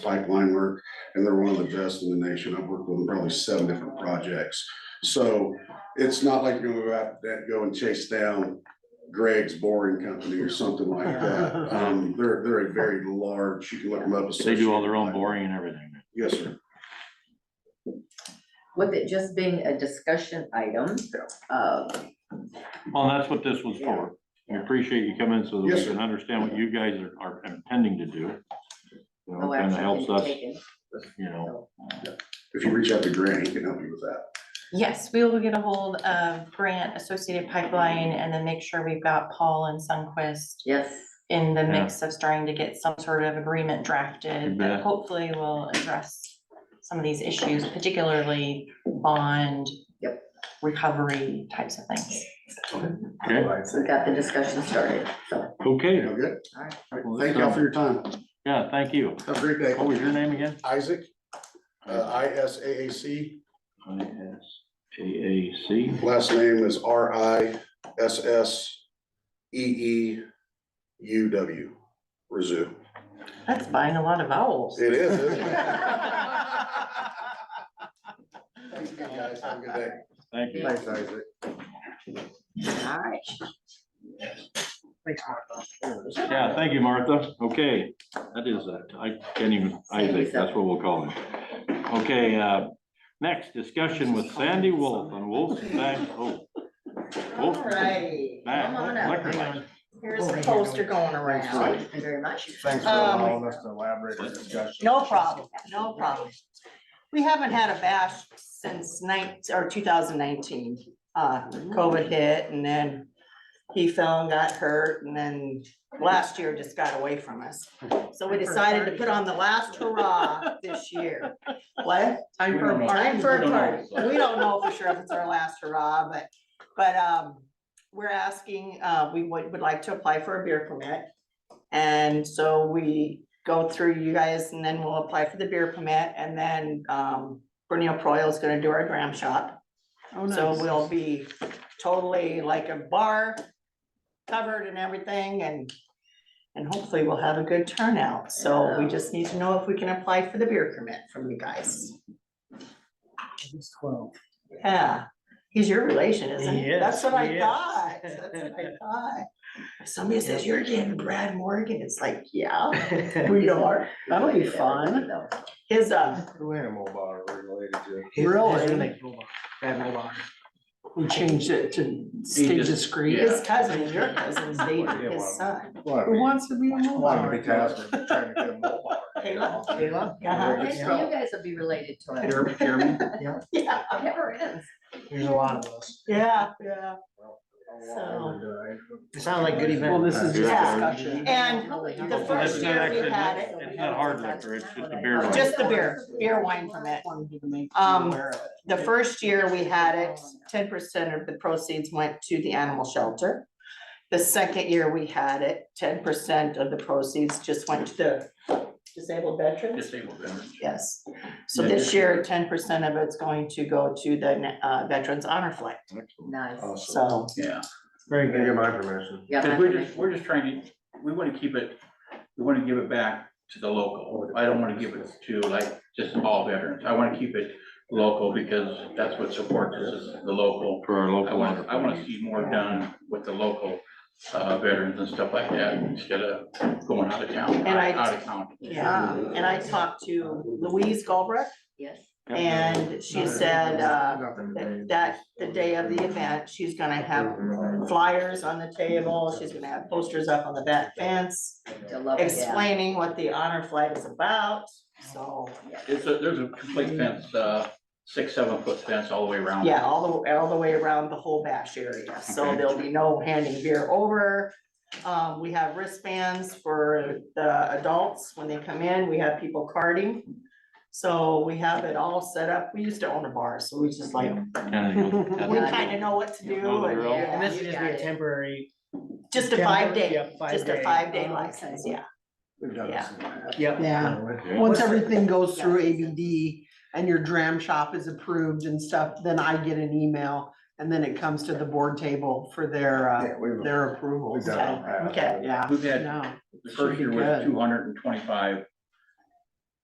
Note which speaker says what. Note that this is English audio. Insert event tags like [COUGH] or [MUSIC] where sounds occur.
Speaker 1: pipeline work, and they're one of the best in the nation. I've worked with them probably seven different projects. So it's not like you go out, that go and chase down Greg's Boring Company or something like that. Um, they're, they're a very large, you can look them up.
Speaker 2: They do all their own
Speaker 1: associated.
Speaker 2: boring and everything.
Speaker 1: Yes, sir.
Speaker 3: With it just being a discussion item, uh,
Speaker 2: Well, that's what this was for. We appreciate you coming so that we
Speaker 1: Yes, sir.
Speaker 2: can understand what you guys are, are intending to do. You know,
Speaker 3: no
Speaker 2: kind of
Speaker 3: action
Speaker 2: helps
Speaker 3: can be
Speaker 2: us,
Speaker 3: taken.
Speaker 2: you know,
Speaker 1: If you reach out to Grant, he can help you with that.
Speaker 4: Yes, we will get a hold of Grant Associated Pipeline and then make sure we've got Paul and Sunquist
Speaker 3: Yes,
Speaker 4: in the mix of starting to get some sort of agreement drafted
Speaker 2: bet.
Speaker 4: that hopefully will address some of these issues, particularly bond
Speaker 3: Yep.
Speaker 4: recovery types of things.
Speaker 2: okay,
Speaker 3: we got the discussion started, so,
Speaker 2: okay.
Speaker 1: Okay?
Speaker 3: all right.
Speaker 2: Well,
Speaker 1: Thank y'all for your time.
Speaker 2: Yeah, thank you.
Speaker 1: Have a great day.
Speaker 2: What was your name again?
Speaker 1: Isaac, uh, I S A A C.
Speaker 2: I S A A C.
Speaker 1: Last name is R I S S E E U W, Rizzo.
Speaker 4: That's buying a lot of vowels.
Speaker 1: It is, isn't it? Thanks, guys. Have a good day.
Speaker 2: Thank you.
Speaker 1: Thanks, Isaac.
Speaker 3: All right.
Speaker 2: Yeah, thank you, Martha. Okay, that is, uh, I can't even, Isaac, that's what we'll call him. Okay, uh, next discussion with Sandy Wolf on Wolf's Back. oh, Wolf's
Speaker 3: All right, come on
Speaker 2: Back Liquor
Speaker 3: up.
Speaker 2: Lounge.
Speaker 5: Here's the poster going
Speaker 3: Wow,
Speaker 5: around.
Speaker 3: Thank you very much.
Speaker 6: Thanks for
Speaker 5: Um,
Speaker 6: allowing us to elaborate our discussion.
Speaker 5: No problem, no problem. We haven't had a bash since nine, or two thousand nineteen. Uh, COVID hit and then he fell and got hurt and then last year just got away from us. So we decided to put on the last hurrah this year. What?
Speaker 6: Time for a party.
Speaker 5: Time for
Speaker 6: We
Speaker 5: a
Speaker 6: don't know.
Speaker 5: party. We don't know for sure if it's our last hurrah, but, but, um, we're asking, uh, we would, would like to apply for a beer permit. And so we go through you guys and then we'll apply for the beer permit and then, um, Bernil Proil is gonna do our dram shop. So we'll be totally like a bar covered and everything and, and hopefully we'll have a good turnout. So we just need to know if we can apply for the beer permit from you guys. Yeah, he's your relation, isn't he?
Speaker 6: He is,
Speaker 5: That's what
Speaker 6: he
Speaker 5: I
Speaker 6: is.
Speaker 5: thought, that's what I thought. If Somebody says, you're dating Brad Morgan, it's like, yeah, we are, that'll be fun. His, uh,
Speaker 6: Who animal bar related to?
Speaker 7: Really? We changed it to stay
Speaker 2: just-
Speaker 7: discreet.
Speaker 5: his cousin, your
Speaker 7: [LAUGHS]
Speaker 5: cousin's dating his son.
Speaker 7: Who wants to be a mobile?
Speaker 6: Want to be tasked with trying to get a mole bar. you know?
Speaker 5: Kayla, Uh-huh.
Speaker 3: Well, You
Speaker 6: Yeah.
Speaker 3: guys will be related to it.
Speaker 7: Jeremy, Jeremy,
Speaker 5: Yeah,
Speaker 3: It never ends.
Speaker 7: there's a lot of us.
Speaker 5: yeah, yeah.
Speaker 7: It sounds like good event. Well, this is just
Speaker 2: Yeah.
Speaker 7: discussion.
Speaker 5: And
Speaker 2: So
Speaker 5: the
Speaker 2: that's
Speaker 5: first
Speaker 2: not
Speaker 5: year
Speaker 2: actually-
Speaker 5: we had it,
Speaker 2: It's not hard liquor, it's just a beer.
Speaker 5: Oh, just the beer, beer wine permit. Um, The first year we had it, ten percent of the proceeds went to the animal shelter. The second year we had it, ten percent of the proceeds just went to the disabled veterans,
Speaker 2: Disabled veterans.
Speaker 5: yes. So this year, ten percent of it's going to go to the uh, Veterans Honor Flight,
Speaker 3: Nice.
Speaker 5: Oh.
Speaker 6: Awesome.
Speaker 5: so.
Speaker 6: Very good. Get my permission.
Speaker 3: Yeah,
Speaker 8: Because
Speaker 3: that's
Speaker 8: we're just,
Speaker 3: amazing.
Speaker 8: we're just trying to, we want to keep it, we want to give it back to the local. I don't want to give it to like just all veterans. I want to keep it local because that's what supports us, is the local.
Speaker 2: For our
Speaker 8: I
Speaker 2: local.
Speaker 8: want, I want to see more done with the local uh, veterans and stuff like that instead of going out of town,
Speaker 5: And I-
Speaker 8: out of county.
Speaker 5: Yeah, and I talked to Louise Galbraith
Speaker 3: Yes.
Speaker 5: and she said, uh, that- that the day of the event, she's gonna have flyers on the table, she's gonna have posters up on the back fence.
Speaker 3: I
Speaker 5: Oh,
Speaker 3: love it, yeah.
Speaker 5: explaining what the honor flight is about, so,
Speaker 8: It's a, there's a complete fence, uh, six, seven foot fence all the way around.
Speaker 5: yeah, all the, all the way around the whole bash area, so
Speaker 8: Okay.
Speaker 5: there'll be no handing beer over. Um, we have wristbands for the adults when they come in, we have people carding. So we have it all set up, we used to own a bar, so we just like, we
Speaker 2: Kind
Speaker 5: kinda know what to
Speaker 2: Know
Speaker 5: do,
Speaker 2: the drill.
Speaker 5: and
Speaker 7: And this
Speaker 3: You
Speaker 7: would just
Speaker 3: got
Speaker 7: be a
Speaker 3: it.
Speaker 7: temporary.
Speaker 5: just a five
Speaker 7: Yeah,
Speaker 5: day,
Speaker 7: five
Speaker 5: just a
Speaker 7: day.
Speaker 5: five day
Speaker 3: Oh,
Speaker 5: license,
Speaker 3: okay.
Speaker 5: yeah,
Speaker 6: We've done this in the past.
Speaker 7: Yep.
Speaker 6: Yeah.
Speaker 9: Yeah, once everything goes through ABD and your dram shop is approved and stuff, then I get an email. And then it comes to the board table for their, uh,
Speaker 6: Yeah, we've-
Speaker 9: their approval.
Speaker 6: we've done it in the past.
Speaker 5: Okay.
Speaker 9: Yeah,
Speaker 8: We've had
Speaker 9: no,
Speaker 8: The first year
Speaker 9: Should be
Speaker 8: was
Speaker 9: good.
Speaker 8: two hundred and twenty-five